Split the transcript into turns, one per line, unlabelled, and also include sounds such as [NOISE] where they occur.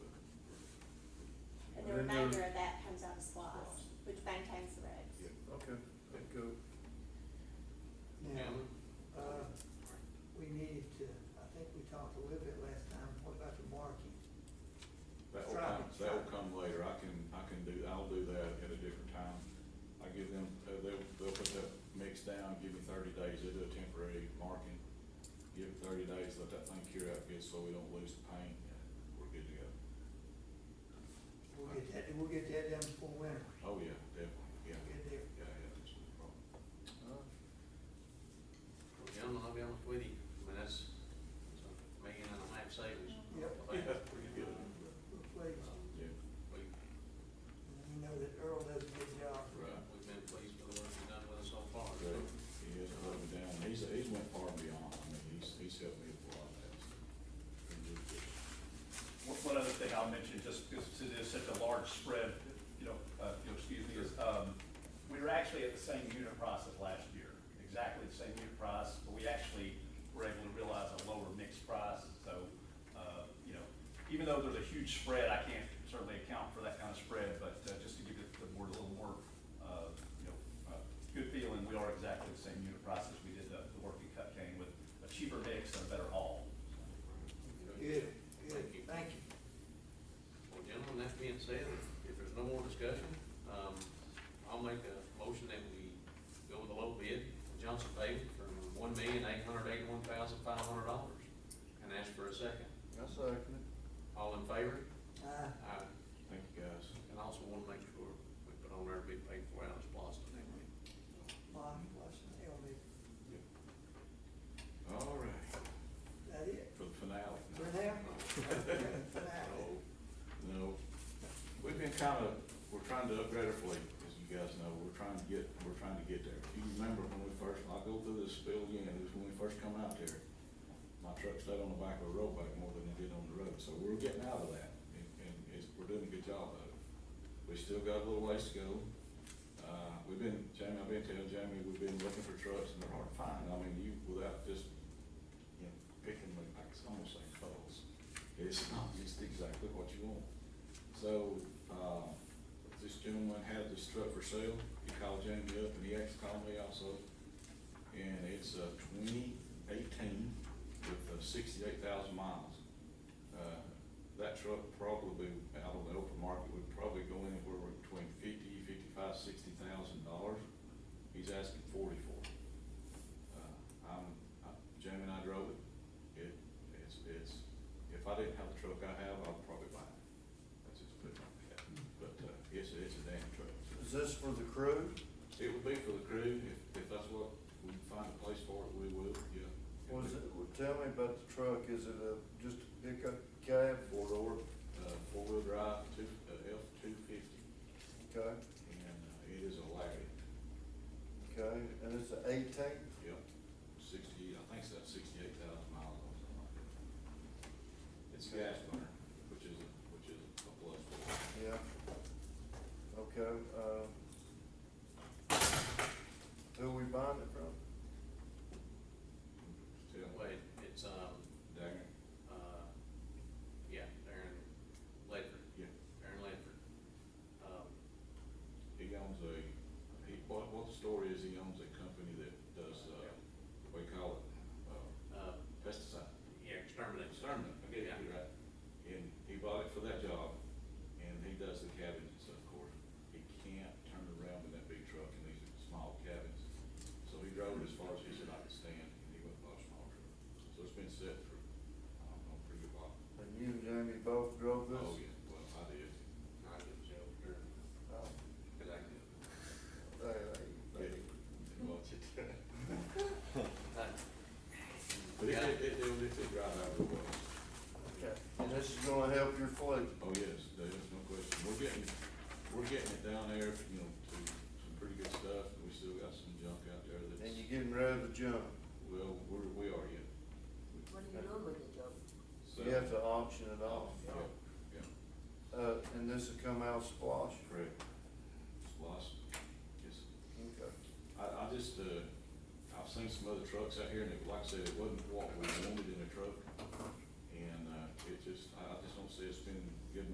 And then-
remainder of that comes out of SLOSS, which maintains the roads.
Okay, let go.
Um,
Now, uh, we needed to, I think we talked a little bit last time, what about the marking?
That'll
Try
come,
it, try
that'll
it.
come later, I can, I can do, I'll do that at a different time. I give them, uh, they'll, they'll put that mix down, give me thirty days, they'll do a temporary marking. Give it thirty days, let that thing cure out good, so we don't lose the paint, and we're good to go.
We'll get that, we'll get that done before winter,
Oh, yeah, definitely, yeah, yeah,
get there.
yeah, that's no problem.
Well, gentlemen, I'll be honest with you, I mean, that's, that's a million and a half savings.
Yep.
But,
Pretty good.
We're pleased,
um,
Yeah,
We,
and we know that Earl does a good job.
right.
we've been pleased with the work you've done with us so far, so.
Right. He has put me down, he's, he's went far and beyond, I mean, he's, he's helped me with a lot of that, so. Pretty good.
One, one other thing I'll mention, just because it is such a large spread, you know, uh, you'll excuse me, is, um, we were actually at the same unit price as last year, exactly the same unit price, but we actually were able to realize a lower mixed price, so, uh, you know, even though there's a huge spread, I can't certainly account for that kind of spread, but, uh, just to give it the board a little more, uh, you know, uh, good feeling, we are exactly the same unit price as we did the, the work in Cut Cane with a cheaper mix and a better haul, so.
Good, good,
Thank you.
thank you.
Well, gentlemen, that being said, if there's no more discussion, um, I'll make a motion that we go with a low bid, Johnson Paving, for one million eight hundred eighty-one thousand five hundred dollars, and ask for a second.
I second it.
All in favor?
Uh,
Aye.
Thank you, guys.
And also want to make sure we put on there to be paid for out of Splost and everything.
Bonnie, Washington, help me,
All right,
Is that it?
for the finale.
For
[LAUGHS]
now?
No, no. We've been kind of, we're trying to upgrade our fleet, as you guys know, we're trying to get, we're trying to get there. If you remember when we first, I'll go through this spill again, it was when we first come out there. My truck stayed on the back of a road back more than it did on the road, so we're getting out of that, and, and it's, we're doing a good job of it. We still got a little ways to go. Uh, we've been, Jamie, I've been telling Jamie, we've been looking for trucks and they're hard to find, I mean, you, without just, you know, picking them, like, it's almost like puzzles. It's not just exactly what you want. So, uh, this gentleman had this truck for sale, he called Jamie up and he actually called me also. And it's a twenty eighteen with uh, sixty-eight thousand miles. Uh, That truck probably out on the open market would probably go anywhere between fifty, fifty-five, sixty thousand dollars. He's asking forty for it. Uh, I'm, I- Jamie and I drove it. It, it's, it's, if I didn't have the truck I have, I'd probably buy it. That's just put it like that. But, uh, it's, it's a damn truck.
Is this for the crew?
It would be for the crew, if, if that's what, we find a place for it, we will, yeah.
Was it, well, tell me about the truck, is it a, just a pickup cab?
Four door, uh, four-wheel drive, two, uh, F two fifty,
Okay,
and uh, it is a Larry,
okay, and it's an eighteen?
yep, sixty, I think it's about sixty-eight thousand miles or something like that. It's a gas burner, which is, a- which is a plus for it.
Yeah. Okay, uh, who we buying it from?
Still,
Wait, it's, um,
dagger,
uh, yeah, Darren Ledford,
yeah,
Darren Ledford. Um,
he owns a, he, what, what the story is, he owns a company that does, uh, what do you call it, uh,
uh,
pesticide.
yeah, exterminate.
Sermon, I get it, you're right. And he bought it for that job, and he does the cabins and stuff, of course. He can't turn around with that big truck in these small cabins. So he drove it as far as he said I could stand, and he went and bought a small truck. So it's been set for, I don't know, pretty good while.
And you and Jamie both drove this?
Oh, yeah, well, I did.
I give it to Darren,
Oh,
'cause I could.
there, there, there.
Didn't watch
[LAUGHS]
it.
Uh,
But it, it, it, it it did right out of the way.
Okay, and this is gonna help your fleet?
Oh, yes, there is no question. We're getting, we're getting it down there, you know, to some pretty good stuff, but we still got some junk out there that's.
And you're getting rid of the junk,
Well, we're, we are yet.
What do you do with it though?
So-
you have to auction it off.
Yeah, yeah,
Uh, and this will come out splosh?
correct. Lost, yes.
Okay.
I, I just, uh, I've seen some other trucks out here and it, like I said, it wasn't what we wanted in a truck. And, uh, it just, I, I just don't see us spending